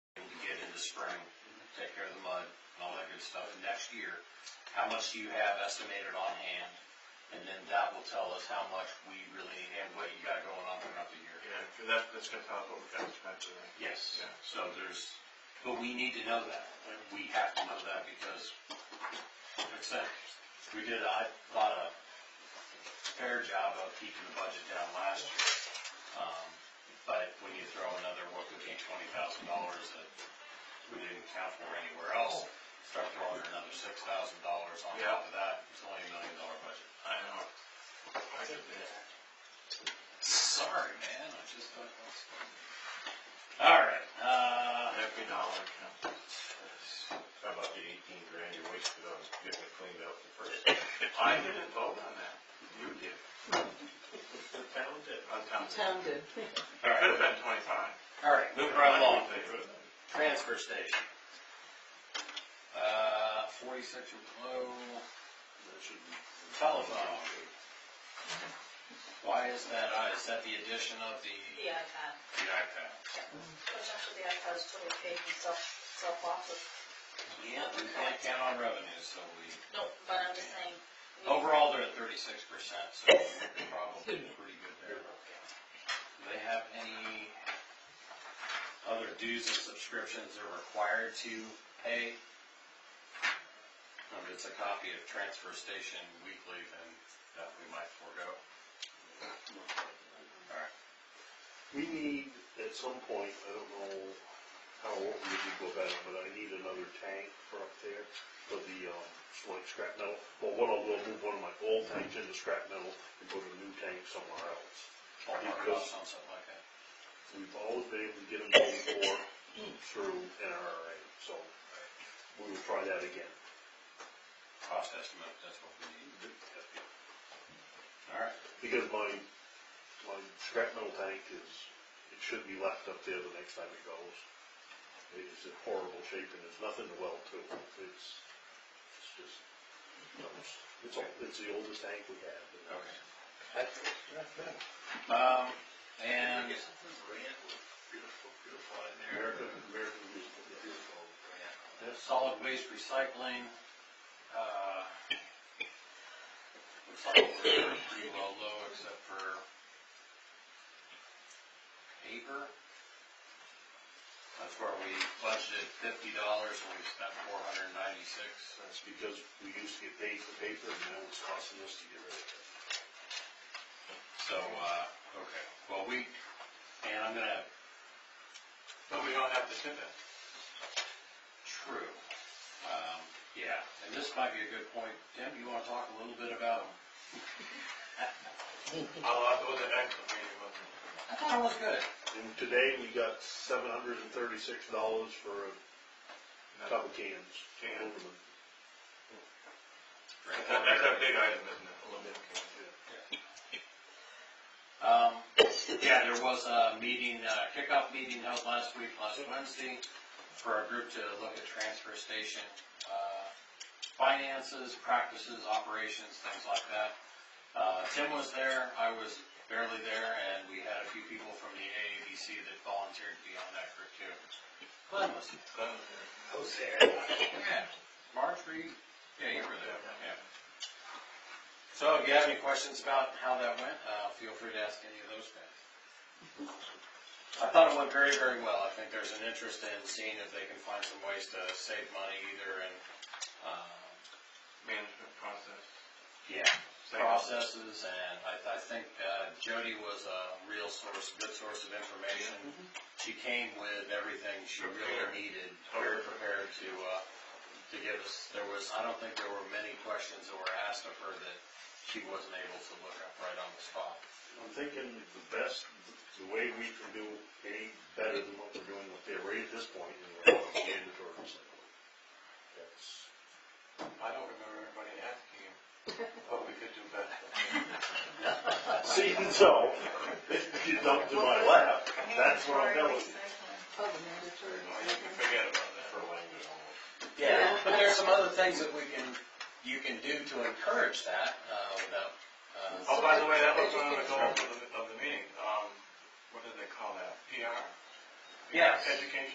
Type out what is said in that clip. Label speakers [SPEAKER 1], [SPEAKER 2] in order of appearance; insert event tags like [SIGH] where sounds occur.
[SPEAKER 1] the spring, take care of the mud and all that good stuff next year. How much do you have estimated on hand? And then that will tell us how much we really need and what you got going on throughout the year.
[SPEAKER 2] Yeah, 'cause that, that's gonna tell us what we've got to spend today.
[SPEAKER 1] Yes,
[SPEAKER 2] Yeah.
[SPEAKER 1] so there's, but we need to know that, and we have to know that because, like I said, we did, I thought a fair job of keeping the budget down last year. Um, but when you throw another, what could be twenty thousand dollars that we didn't account for anywhere else, start throwing another six thousand dollars on top of that, it's only a million dollar budget.
[SPEAKER 2] I know. I get that.
[SPEAKER 1] Sorry, man, I just thought that was funny. All right, uh.
[SPEAKER 2] Every dollar counts.
[SPEAKER 3] How about the eighteen grand you wasted on getting it cleaned up the first?
[SPEAKER 2] I didn't vote on that. You did.
[SPEAKER 3] The town did.
[SPEAKER 2] On town.
[SPEAKER 4] Sounded.
[SPEAKER 1] All
[SPEAKER 2] Could
[SPEAKER 1] right,
[SPEAKER 2] have been twenty-five.
[SPEAKER 1] all right, moving right along,
[SPEAKER 2] They could have.
[SPEAKER 1] transfer station. Uh, forty-six or below, telephone. Why is that, uh, is that the addition of the,
[SPEAKER 5] The iPad, Mm.
[SPEAKER 1] the iPad?
[SPEAKER 5] which actually the iPad is totally paid and self, self-bought,
[SPEAKER 1] Yeah, we can't count on revenues, so we,
[SPEAKER 5] no, but I'm just saying. we-
[SPEAKER 1] overall, they're at thirty-six percent, so we're probably pretty good there. Do they have any other dues and subscriptions they're required to pay? If it's a copy of Transfer Station Weekly, then that we might forego.
[SPEAKER 3] We need, at some point, I don't know how old we would go back, but I need another tank for up there for the, um, like scrap metal. Well, what I'll do, I'll move one of my old tanks into scrap metal and put a new tank somewhere else.
[SPEAKER 1] Or mark it up on something like that.
[SPEAKER 3] We've always been able to get them done for through NRA, so we will try that again.
[SPEAKER 1] Cost estimate, that's what we need. All right,
[SPEAKER 3] Because my, my scrap metal tank is, it should be left up there the next time it goes. It is in horrible shape and there's nothing to weld to. It's, it's just, no, it's, it's all- it's the oldest tank we have.
[SPEAKER 1] okay. Um, and
[SPEAKER 3] American, American Legion, yeah.
[SPEAKER 1] solid waste recycling, uh, looks like we're pretty well low except for paper. That's where we budgeted fifty dollars and we spent four hundred and ninety-six.
[SPEAKER 3] That's because we used to get paid for paper and now it's costing us to get rid of it.
[SPEAKER 1] So, uh, okay, well, we, and I'm gonna,
[SPEAKER 2] But we don't have to tip it.
[SPEAKER 1] true, um, yeah, and this might be a good point. Tim, you wanna talk a little bit about them?
[SPEAKER 2] I'll, I'll go to the next meeting with them.
[SPEAKER 1] I thought it was good.
[SPEAKER 3] And today we got seven hundred and thirty-six dollars for a couple cans.
[SPEAKER 2] Can.
[SPEAKER 3] Aluminum.
[SPEAKER 1] Great.
[SPEAKER 2] That- That's a big item, isn't it? Aluminum can.
[SPEAKER 1] Um, yeah, there was a meeting, uh, kickoff meeting held last week, last Wednesday, for our group to look at transfer station, uh, finances, practices, operations, things like that. Uh, Tim was there, I was barely there, and we had a few people from the AABC that volunteered to be on that group too. Glenn was there.
[SPEAKER 2] That was it.
[SPEAKER 1] Yeah, Marjorie, yeah, you were there, yeah. So if you have any questions about how that went, uh, feel free to ask any of those guys. I thought it went very, very well. I think there's an interest in seeing if they can find some ways to save money either in, uh,
[SPEAKER 2] Management process.
[SPEAKER 1] yeah, processes, and I, I think uh, Jody was a real source, good source of information. She came with everything she really
[SPEAKER 2] Prepared.
[SPEAKER 1] needed, very prepared to, uh, to give us, there was, I don't think there were many questions that were asked of her that she wasn't able to look up right on the spot.
[SPEAKER 3] I'm thinking the best, the way we can do any better than what we're doing up there right at this point is mandatory recycling. That's,
[SPEAKER 2] I don't remember anybody asking [LAUGHS] you what we could do better.
[SPEAKER 3] see, and so, if you dump to my lap, that's what I'm telling you.
[SPEAKER 4] Oh, the mandatory. recycling.
[SPEAKER 2] Forget about that.
[SPEAKER 1] Yeah, but there's some other things that we can, you can do to encourage that, uh, without, uh,
[SPEAKER 2] Oh, by the way, that was one of the goals of the, of the meeting, um, what did they call that? PR?
[SPEAKER 1] Yes.
[SPEAKER 2] Education